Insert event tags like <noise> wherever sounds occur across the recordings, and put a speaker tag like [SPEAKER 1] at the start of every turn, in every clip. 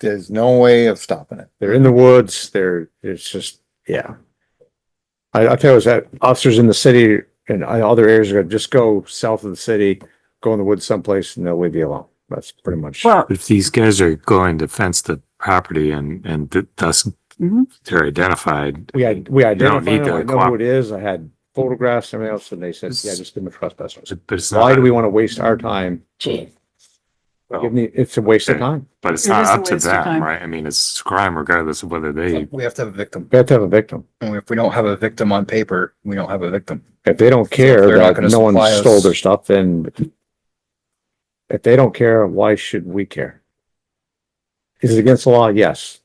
[SPEAKER 1] there's no way of stopping it.
[SPEAKER 2] They're in the woods, they're, it's just, yeah. I, I tell you, that officers in the city and I- other areas are gonna just go south of the city, go in the woods someplace and they'll leave you alone. That's pretty much.
[SPEAKER 3] Well,
[SPEAKER 4] If these guys are going to fence the property and, and th- thus
[SPEAKER 3] Mhm.
[SPEAKER 4] they're identified.
[SPEAKER 2] We had, we identified,
[SPEAKER 4] need
[SPEAKER 2] them,
[SPEAKER 4] to
[SPEAKER 2] I know who it is, I had photographs and everything else, and they said, yeah, just give them a trespass. notice."
[SPEAKER 4] But it's
[SPEAKER 2] Why
[SPEAKER 4] not,
[SPEAKER 2] do we want to waste our time?
[SPEAKER 4] Well-
[SPEAKER 2] Give me, it's a waste of time.
[SPEAKER 4] but it's
[SPEAKER 3] It
[SPEAKER 4] not
[SPEAKER 3] is a
[SPEAKER 4] up to
[SPEAKER 3] waste of time.
[SPEAKER 4] them, right? I mean, it's crime regardless of whether they,
[SPEAKER 1] We have to have a victim.
[SPEAKER 2] We have to have a victim.
[SPEAKER 1] And if we don't have a victim on paper, we don't have a victim.
[SPEAKER 2] If they don't
[SPEAKER 1] If
[SPEAKER 2] care
[SPEAKER 1] they're not
[SPEAKER 2] that
[SPEAKER 1] gonna
[SPEAKER 2] no one
[SPEAKER 1] supply us-
[SPEAKER 2] stole their stuff, then if they don't care, why should we care? Is it against the law? Yes.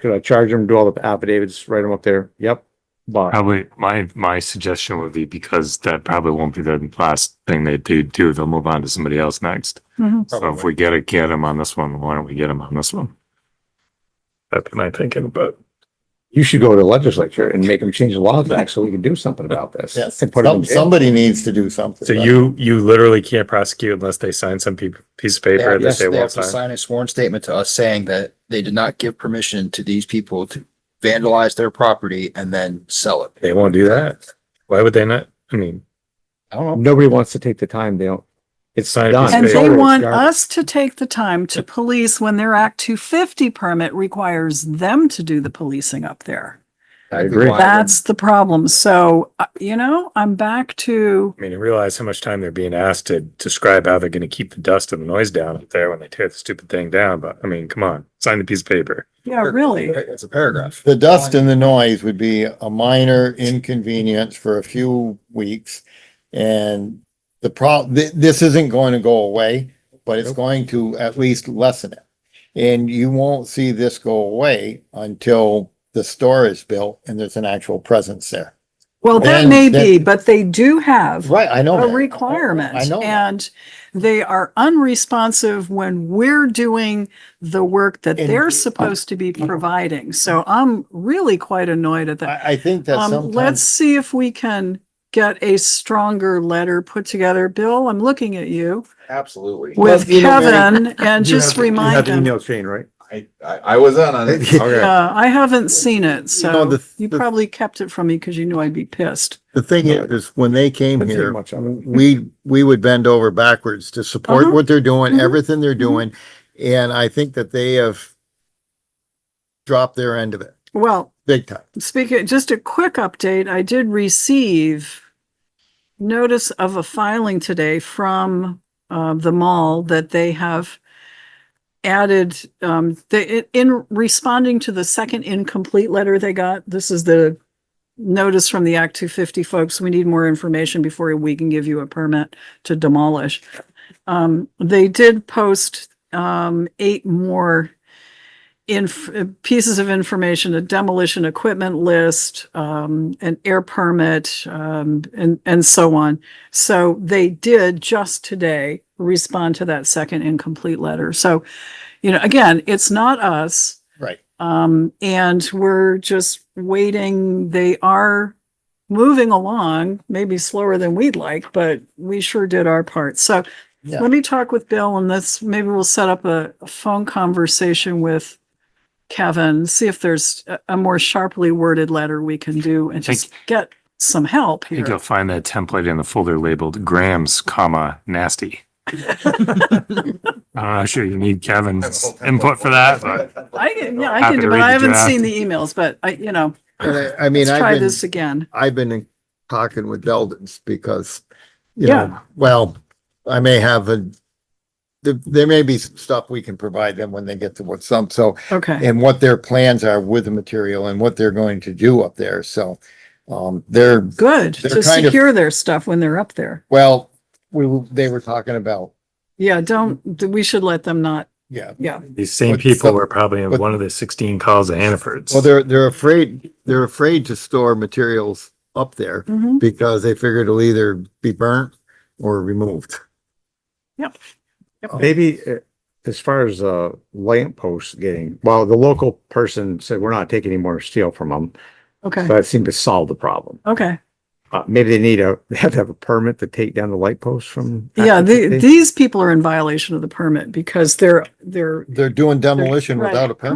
[SPEAKER 2] Could I charge them, do all the affidavits, write them up there? Yep. But
[SPEAKER 4] probably, my, my suggestion would be because that probably won't be the last thing they do, do, they'll move on to somebody else next.
[SPEAKER 3] Mhm.
[SPEAKER 4] So if we gotta get them on this one, why don't we get them on this one? That'd be my thinking, but.
[SPEAKER 2] you should go to the legislature and make them change the laws back so we can do something about this. And put them
[SPEAKER 1] Some-
[SPEAKER 2] in jail.
[SPEAKER 1] Somebody needs to do something.
[SPEAKER 5] So you, you literally can't prosecute unless they sign some pe- piece of
[SPEAKER 1] They
[SPEAKER 5] paper
[SPEAKER 1] have
[SPEAKER 5] and they say,
[SPEAKER 1] they
[SPEAKER 5] well,
[SPEAKER 1] have to
[SPEAKER 5] sign.
[SPEAKER 1] sign a sworn statement to us saying that they did not give permission to these people to vandalize their property and then sell it.
[SPEAKER 5] They won't do that. Why would they not? I mean,
[SPEAKER 1] I don't know.
[SPEAKER 2] Nobody wants to take the time. They don't. It's
[SPEAKER 5] Sign a
[SPEAKER 2] done.
[SPEAKER 5] piece of
[SPEAKER 3] And
[SPEAKER 5] It's
[SPEAKER 3] they
[SPEAKER 5] always
[SPEAKER 3] want us to take the time to police when their Act two fifty permit requires them to do the policing up there.
[SPEAKER 2] I agree.
[SPEAKER 1] Why would-
[SPEAKER 3] That's the problem. So, uh, you know, I'm back to,
[SPEAKER 5] I mean, you realize how much time they're being asked to describe how they're gonna keep the dust and the noise down up there when they tear the stupid thing down, but I mean, come on, sign the piece of paper.
[SPEAKER 3] yeah, really.
[SPEAKER 1] It's a
[SPEAKER 6] <laughs>
[SPEAKER 1] paragraph.
[SPEAKER 6] The dust and the noise would be a minor inconvenience for a few weeks. And the prob, thi- this isn't going to go away, but it's going to at least lessen it. And you won't see this go away until the store is built and there's an actual presence there.
[SPEAKER 3] Well, that
[SPEAKER 6] And
[SPEAKER 3] may
[SPEAKER 6] that-
[SPEAKER 3] be, but they do have
[SPEAKER 6] Right, I know.
[SPEAKER 3] a
[SPEAKER 6] that.
[SPEAKER 3] requirement.
[SPEAKER 6] I know. that.
[SPEAKER 3] And they are unresponsive when we're doing the work that
[SPEAKER 6] And- Mm-hmm.
[SPEAKER 3] they're supposed to be providing. So I'm really quite annoyed at that.
[SPEAKER 6] I, I think that
[SPEAKER 3] Um, let's
[SPEAKER 6] sometimes,
[SPEAKER 3] see if we can get a stronger letter put together. Bill, I'm looking at you
[SPEAKER 7] Absolutely.
[SPEAKER 3] with
[SPEAKER 6] <laughs> you know, Mary,
[SPEAKER 3] Kevin and
[SPEAKER 2] You
[SPEAKER 3] just
[SPEAKER 2] have- you have
[SPEAKER 3] remind
[SPEAKER 2] the
[SPEAKER 3] them.
[SPEAKER 2] Email chain, right?
[SPEAKER 7] I, I, I was on on it.
[SPEAKER 3] Yeah, Uh, I haven't seen it,
[SPEAKER 6] know,
[SPEAKER 3] so
[SPEAKER 6] the-
[SPEAKER 3] you
[SPEAKER 6] the-
[SPEAKER 3] probably kept it from me because you knew I'd be pissed.
[SPEAKER 6] the thing is, is when they came
[SPEAKER 2] Didn't
[SPEAKER 6] here,
[SPEAKER 2] see much of it.
[SPEAKER 6] we, we would bend over backwards to support
[SPEAKER 3] Uh-huh.
[SPEAKER 6] what they're doing,
[SPEAKER 3] Mhm.
[SPEAKER 6] everything they're
[SPEAKER 3] Mhm.
[SPEAKER 6] doing. And I think that they have dropped their end of it
[SPEAKER 3] Well,
[SPEAKER 6] big time.
[SPEAKER 3] Speaking, just a quick update, I did receive notice of a filing today from uh, the mall that they have added, um, they, in responding to the second incomplete letter they got, this is the notice from the Act two fifty folks, we need more information before we can give you a permit to demolish. Um, they did post, um, eight more inf- uh, pieces of information, a demolition equipment list, um, an air permit, um, and, and so on. So they did just today respond to that second incomplete letter. So, you know, again, it's not us.
[SPEAKER 6] Right.
[SPEAKER 3] Um, and we're just waiting. They are moving along, maybe slower than we'd like, but we sure did our part. So
[SPEAKER 6] Yeah.
[SPEAKER 3] let me talk with Bill and this, maybe we'll set up a a phone conversation with Kevin, see if there's a, a more sharply worded letter we can do and
[SPEAKER 4] Thank-
[SPEAKER 3] just get some help
[SPEAKER 4] I think
[SPEAKER 3] here.
[SPEAKER 4] you'll find that template in the folder labeled grams, comma, nasty. I'm not sure you need Kevin's input
[SPEAKER 2] <laughs>
[SPEAKER 4] for that, but
[SPEAKER 3] I, can- yeah, I can,
[SPEAKER 4] Happy
[SPEAKER 3] do
[SPEAKER 4] to
[SPEAKER 3] but
[SPEAKER 4] read
[SPEAKER 3] I
[SPEAKER 4] the
[SPEAKER 3] haven't
[SPEAKER 4] draft.
[SPEAKER 3] seen the emails, but I, you know,
[SPEAKER 6] And I, I mean,
[SPEAKER 3] let's try
[SPEAKER 6] I've been,
[SPEAKER 3] this again.
[SPEAKER 6] I've been in- talking with Deldens because, you
[SPEAKER 3] Yeah.
[SPEAKER 6] know, well, I may have a, there, there may be some stuff we can provide them when they get to what some, so,
[SPEAKER 3] Okay.
[SPEAKER 6] and what their plans are with the material and what they're going to do up there. So, um, they're,
[SPEAKER 3] Good.
[SPEAKER 6] They're
[SPEAKER 3] To
[SPEAKER 6] kind of-
[SPEAKER 3] secure their stuff when they're up there.
[SPEAKER 6] well, we, they were talking about,
[SPEAKER 3] Yeah, don't, we should let them not,
[SPEAKER 6] yeah,
[SPEAKER 3] yeah.
[SPEAKER 5] These same
[SPEAKER 6] But
[SPEAKER 5] people
[SPEAKER 6] some-
[SPEAKER 5] were probably in
[SPEAKER 6] but-
[SPEAKER 5] one of the sixteen calls of Hannaford's.
[SPEAKER 6] Well, they're, they're afraid, they're afraid to store materials up there
[SPEAKER 3] Mhm.
[SPEAKER 6] because they figure it'll either be burnt or removed.
[SPEAKER 3] Oh.
[SPEAKER 2] Maybe uh, as far as uh lamp posts getting, well, the local person said, we're not taking any more steel from them.
[SPEAKER 3] Okay,
[SPEAKER 2] That seemed to solve the problem.
[SPEAKER 3] okay.
[SPEAKER 2] uh, maybe they need a, <laughs> they have to have a permit to take down the light posts from.
[SPEAKER 3] Yeah,
[SPEAKER 2] active
[SPEAKER 3] the,
[SPEAKER 2] safety?
[SPEAKER 3] these people are in violation of the permit because they're, they're
[SPEAKER 6] They're doing demolition
[SPEAKER 3] Right.
[SPEAKER 6] without a permit.